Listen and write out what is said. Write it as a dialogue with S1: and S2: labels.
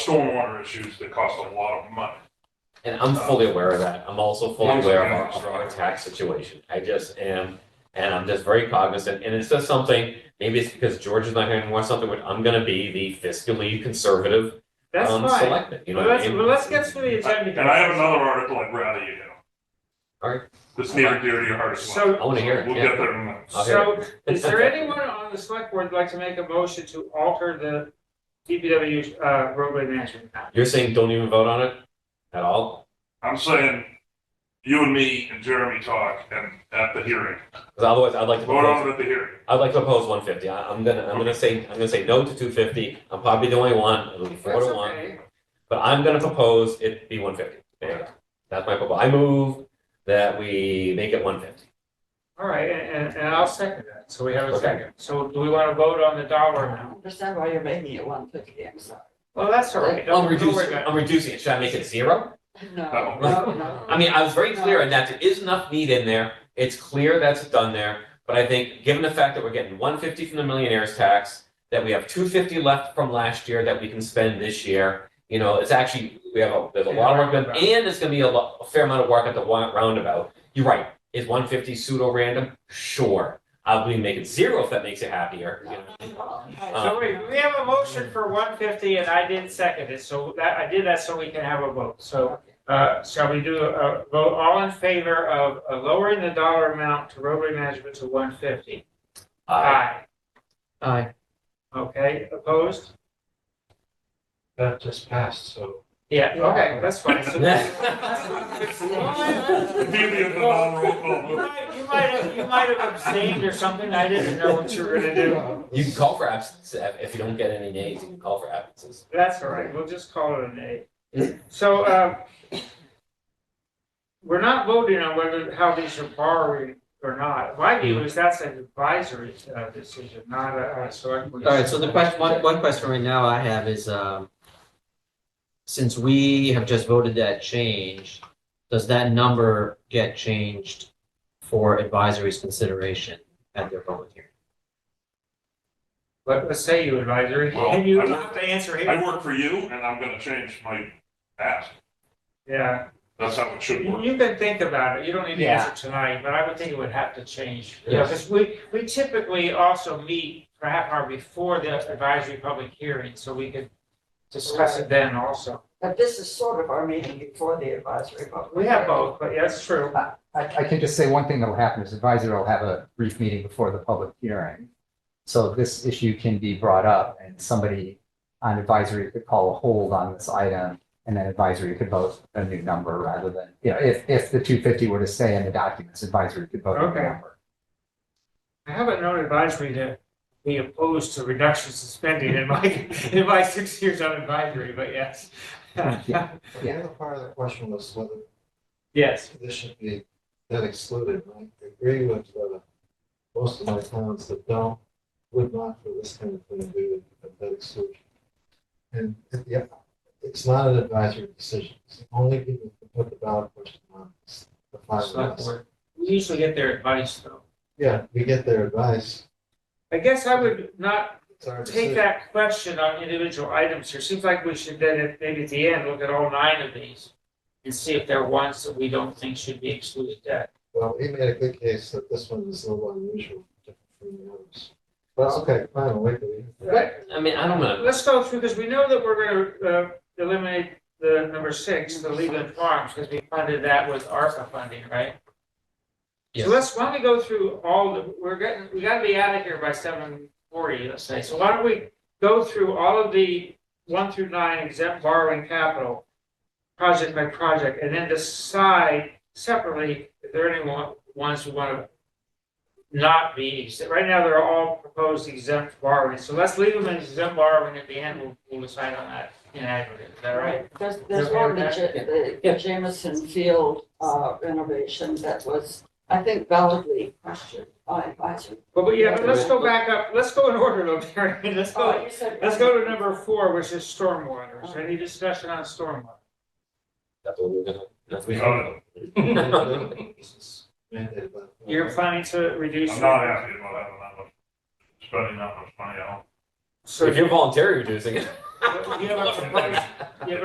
S1: stormwater issues that cost a lot of money.
S2: And I'm fully aware of that. I'm also fully
S1: Yeah.
S2: aware of our, of our tax situation. I just am, and I'm just very cognizant, and it's just something, maybe it's because George is not here anymore, something where I'm gonna be the fiscally conservative,
S3: That's
S2: um,
S3: fine.
S2: selectman, you know
S3: Well,
S2: what I
S3: let's,
S2: mean?
S3: well, let's get through the agenda.
S1: And I have another article I'd rather you do.
S2: Alright.
S1: That's near and dear to your heart as well.
S3: So,
S2: I wanna hear it,
S1: We'll
S2: yeah.
S1: get there in a minute.
S2: I'll hear
S3: So, is there anyone on the select board who'd like to make a motion to alter the DPW uh, roadway management plan?
S2: You're saying don't even vote on it at all?
S1: I'm saying, you and me and Jeremy talk and at the hearing,
S2: 'Cause otherwise, I'd like to
S1: vote on
S2: propose,
S1: it at the hearing.
S2: I'd like to propose one fifty. I, I'm gonna, I'm gonna say, I'm gonna say no to two fifty. I'm probably the only one, it'll be four
S3: That's
S2: to one.
S3: okay.
S2: But I'm gonna propose it be one fifty. There you go. That's my proposal. I move that we make it one fifty.
S3: All right, and, and- and I'll second that. So we have a
S2: Okay.
S3: second. So do we want to vote on the dollar amount?
S4: Understand why you're making it one fifty, I'm sorry.
S3: Well, that's all right.
S2: I'm
S3: Don't- don't worry
S2: reducing,
S3: about it.
S2: I'm reducing it. Should I make it zero?
S4: No,
S1: No.
S4: no, no.
S2: I mean, I was very clear in that there is enough meat in there. It's clear that's done there. But I think, given the fact that we're getting one fifty from the millionaire's tax, that we have two fifty left from last year that we can spend this year, you know, it's actually, we have, a there's a lot of work done, and it's gonna be a lot, a fair amount of work at the wa- roundabout. You're right. Is one fifty pseudo random? Sure. I'll be making zero if that makes you happier, you know.
S3: So we, we have a motion for one fifty and I did second it, so that, I did that so we can have a vote, so. Uh, shall we do a vote, all in favor of uh, lowering the dollar amount to roadway management to one fifty?
S2: Uh,
S3: Aye. Okay, opposed?
S5: That just passed, so.
S3: Yeah, okay, that's fine. So-
S1: The beauty of the non-roll call vote.
S3: You might, you might have, you might have abstained or something, I didn't know what you were gonna do.
S2: You can call for absence if if you don't get any nays. You can call for absences.
S3: That's all right, we'll just call it an A. So, uh, we're not voting on whether, how these are borrowing or not. My view is that's an advisory uh, decision, not a, a select. board
S6: All right, so the
S3: decision.
S6: question, one, one question right now I have is, um, since we have just voted that change, does that number get changed for advisory's consideration at their public hearing?
S3: Let, let's say you advisory,
S1: Well,
S3: and you
S1: I-
S3: don't have to answer
S1: I
S3: here.
S1: work for you and I'm gonna change my ask.
S3: Yeah,
S1: That's how it should
S3: you,
S1: work.
S3: you can think about it, you don't need to
S6: Yeah.
S3: answer tonight, but I would think it would have to change. You know, 'cause we, we typically also meet for half hour before the advisory public hearing, so we could discuss it then also.
S4: But this is sort of our meeting before the advisory vote.
S3: We have both, but yeah, that's true.
S7: I, I can just say one thing that'll happen is advisory will have a brief meeting before the public hearing. So this issue can be brought up and somebody on advisory could call a hold on this item and then advisory could vote a new number rather than, you know, if, if the two fifty were to stay in the documents, advisory could vote a new
S3: Okay.
S7: number.
S3: I haven't known advisory to be opposed to reductions in spending in my, in my six years on advisory, but yes.
S7: Yeah.
S5: The other part of the question was whether
S3: Yes,
S5: this should be, that excluded, and I agree with, uh, most of my towns that don't, would not for this kind of thing do that- that exclusion. And, yeah, it's not an advisory decision, it's the only people who put the ballot question on is the five of
S3: select
S5: us.
S3: board. We usually get their advice though.
S5: Yeah, we get their advice.
S3: I guess I would not
S5: It's our
S3: take
S5: decision.
S3: that question on individual items here. Seems like we should then, at- maybe at the end, look at all nine of these and see if there are ones that we don't think should be excluded debt.
S5: Well, he made a good case that this one is a little unusual, different from the others. But okay, fine, wait till you.
S2: I mean, I don't know.
S3: Let's go through, because we know that we're gonna uh, eliminate the number six, the Leland Farms, because we funded that with ARPA funding, right? So
S6: Yes.
S3: let's, why don't we go through all, the we're getting, we gotta be out of here by seven forty, let's say. So why don't we go through all of the one through nine exempt borrowing capital, project by project, and then decide separately if there are any one- ones we want to not be exempt. Right now, they're all proposed exempt borrowing, so let's leave them in exempt borrowing at the end, we'll, we'll decide on that in aggregate, is that right?
S4: There's, there's
S3: Yeah.
S4: one, the Ja-
S2: Yeah.
S4: the Jameson Field uh, renovation that was, I think validly questioned by advisory.
S3: But, but yeah, but let's go back up, let's go in order though, Mary, let's go,
S4: Oh, you said-
S3: let's go to number four, which is stormwater. Is there any discussion on stormwater?
S2: That's what we're gonna. That's what
S1: Uh,
S2: we're gonna.
S5: Mandated by the-
S3: You're planning to reduce.
S1: I'm not happy about having that much, spending that much money on.
S3: So
S2: If you're voluntarily reducing it. Do you have a proposed